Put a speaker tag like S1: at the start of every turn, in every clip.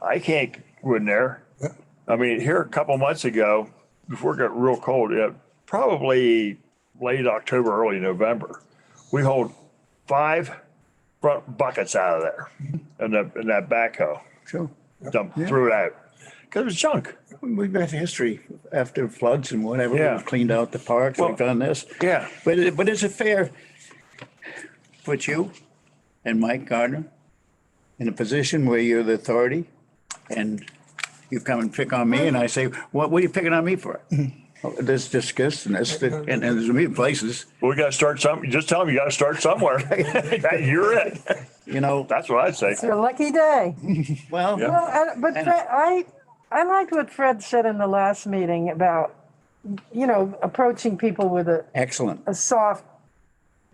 S1: I can't go in there. I mean, here a couple months ago, before it got real cold, yeah, probably late October, early November, we hauled five front buckets out of there and that, and that backhoe,
S2: Sure.
S1: dumped, threw it out. Cause it was junk.
S2: We've got history after floods and whatever.
S1: Yeah.
S2: We've cleaned out the parks,
S1: Well,
S2: we've done this.
S1: yeah.
S2: But, it- but it's a fair, put you and Mike Gardner in a position where you're the authority and you come and pick on me and I say, what, what are you picking on me for? Oh,
S1: Mm-hmm.
S2: This disgust and this, and and there's many places,
S1: We gotta start some, just tell them you gotta start somewhere. You're it.
S2: you know,
S1: That's what I'd say.
S3: It's a lucky day.
S2: well.
S1: Yeah.
S3: Well, and- but
S2: And-
S3: Fred- I, I liked what Fred said in the last meeting about, you know, approaching people with a,
S2: Excellent.
S3: a soft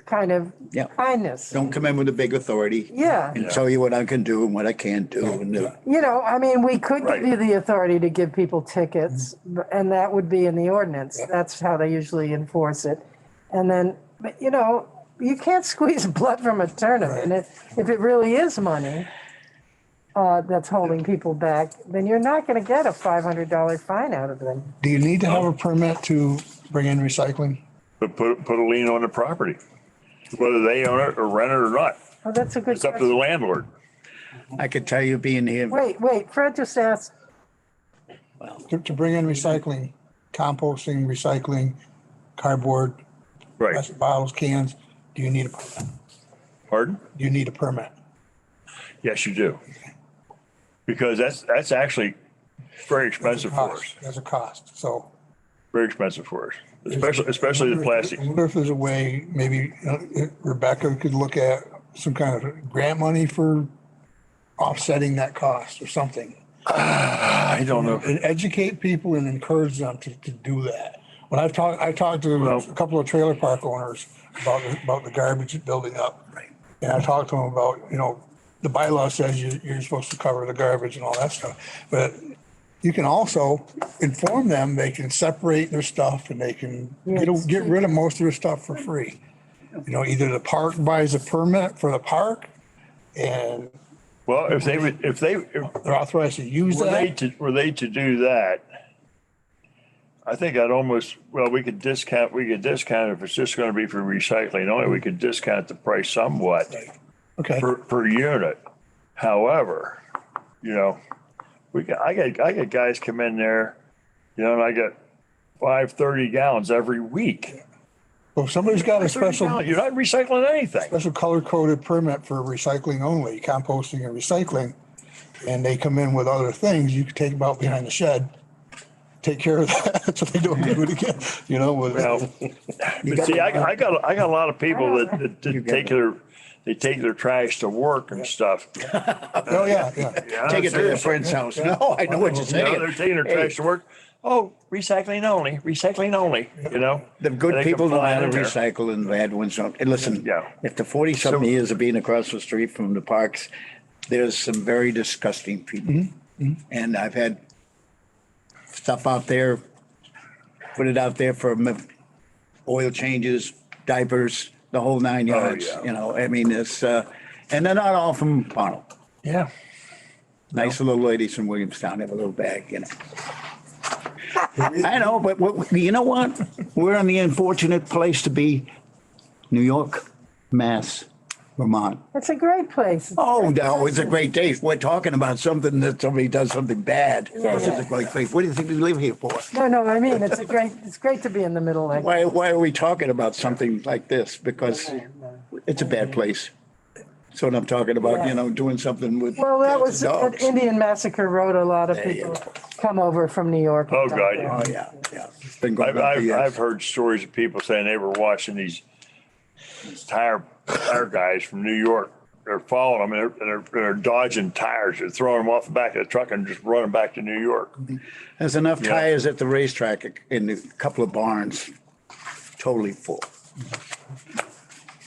S3: kind of
S2: Yeah.
S3: kindness.
S2: Don't come in with a big authority.
S3: Yeah.
S2: And tell you what I can do and what I can't do. And uh,
S3: You know, I mean, we could
S1: Right. Mm-hmm.
S3: give you the authority to give people tickets, b- and that would be in the ordinance. That's how they usually enforce it. And then, but you know, you can't squeeze blood from a turnip. And if, if it really is money uh, that's holding people back, then you're not going to get a $500 fine out of them.
S4: Do you need to have a permit to bring in recycling?
S1: But put, put a lien on the property, whether they own it or rent it or not.
S3: Oh, that's a good
S1: It's up to
S3: question.
S1: the landlord.
S2: I could tell you being here.
S3: Wait, wait, Fred just asked,
S4: To, to bring in recycling, composting, recycling, cardboard,
S1: Right.
S4: plastic bottles, cans, do you need a, permit?
S1: Pardon?
S4: do you need a permit?
S1: Yes, you do. Because that's, that's actually very expensive for us,
S4: Cost, There's a cost, so.
S1: very expensive for us, especially, especially the plastic.
S4: I wonder if there's a way, maybe you know, if Rebecca could look at some kind of grant money for offsetting that cost or something.
S1: I don't know.
S4: and educate people and encourage them to, to do that. When I've talked, I talked to
S1: Well-
S4: a couple of trailer park owners about, the- about the garbage building up. And I talked to them about, you know, the bylaw says you, you're supposed to cover the garbage and all that stuff. But you can also inform them, they can separate their stuff and they can get,
S3: Yes.
S4: get rid of most of their stuff for free. You know, either the park buys a permit for the park and
S1: Well, if they would, if they, if
S4: they're authorized to use
S1: Were they
S4: that.
S1: to, were they to do that? I think I'd almost, well, we could discount, we could discount if it's just gonna be for recycling only, we could discount the price somewhat
S4: Okay.
S1: per, per unit. However, you know, we got, I got, I got guys come in there, you know, and I got five thirty gallons every week.
S4: So if somebody's got
S1: 30
S4: a special.
S1: gallon, You're not recycling anything.
S4: special color coded permit for recycling only, composting and recycling. And they come in with other things, you can take them out behind the shed, take care of that, so they don't do it again, you know, with.
S1: Now, but see, I, I got, I got a lot of people that, that- that
S2: got
S1: take
S2: it.
S1: their, they take their trash to work and stuff.
S4: Oh, yeah, yeah.
S1: Yeah,
S2: Take it to their
S1: seriously.
S2: friend's house. No, I know what you're
S1: You know, they're
S2: saying.
S1: taking their trash to work. Oh, recycling only, recycling only, you know?
S2: The
S1: And
S2: good
S1: they
S2: people know
S1: comply
S2: how to
S1: in there.
S2: recycle and the bad ones don't. And listen,
S1: Yeah.
S2: if the forty something years of being across the street from the parks, there's some very disgusting people.
S1: Mm-hmm.
S2: And I've had stuff out there, put it out there for m- oil changes, diapers, the whole nine yards,
S1: Oh, yeah.
S2: you know, I mean, it's, uh, and they're not all from Pownell.
S4: Yeah.
S2: Nice little ladies from Williamstown have a little bag, you know. I know, but what- you know what? We're in the unfortunate place to be. New York, Mass, Vermont.
S3: it's a great place.
S2: Oh, no, it's a great day. We're talking about something that somebody does something bad. This is a great place. What do you think we live here for?
S3: No, no, I mean, it's a great, it's great to be in the middle like
S2: Why, why are we talking about something like this? Because it's a bad place. That's what I'm talking about, you know, doing something with.
S3: Well, that was, at
S2: dogs.
S3: Indian Massacre Road, a lot of
S2: There you
S3: people come over from New York.
S1: Oh, God, yeah.
S2: Oh, yeah, yeah. It's been going
S1: I've,
S2: on for
S1: I've,
S2: years.
S1: I've heard stories of people saying they were watching these these tire, tire guys from New York. They're following them and they're, and they're, they're dodging tires. They're throwing them off the back of the truck and just running back to New York.
S2: There's enough
S1: Yeah.
S2: tires at the racetrack in a couple of barns, totally full.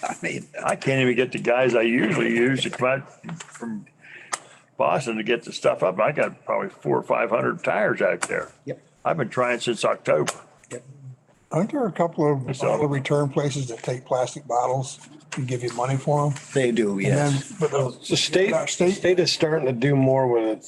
S2: I mean,
S1: I can't even get the guys I usually use to come out from Boston to get the stuff up. I got probably four or 500 tires out there.
S2: Yep.
S1: I've been trying since October.
S4: Aren't there a couple of bottle return places that take plastic bottles and give you money for them?
S2: they do,
S4: And
S2: yes.
S4: then, but the
S5: The state,
S4: Our state-
S5: state is starting to do more with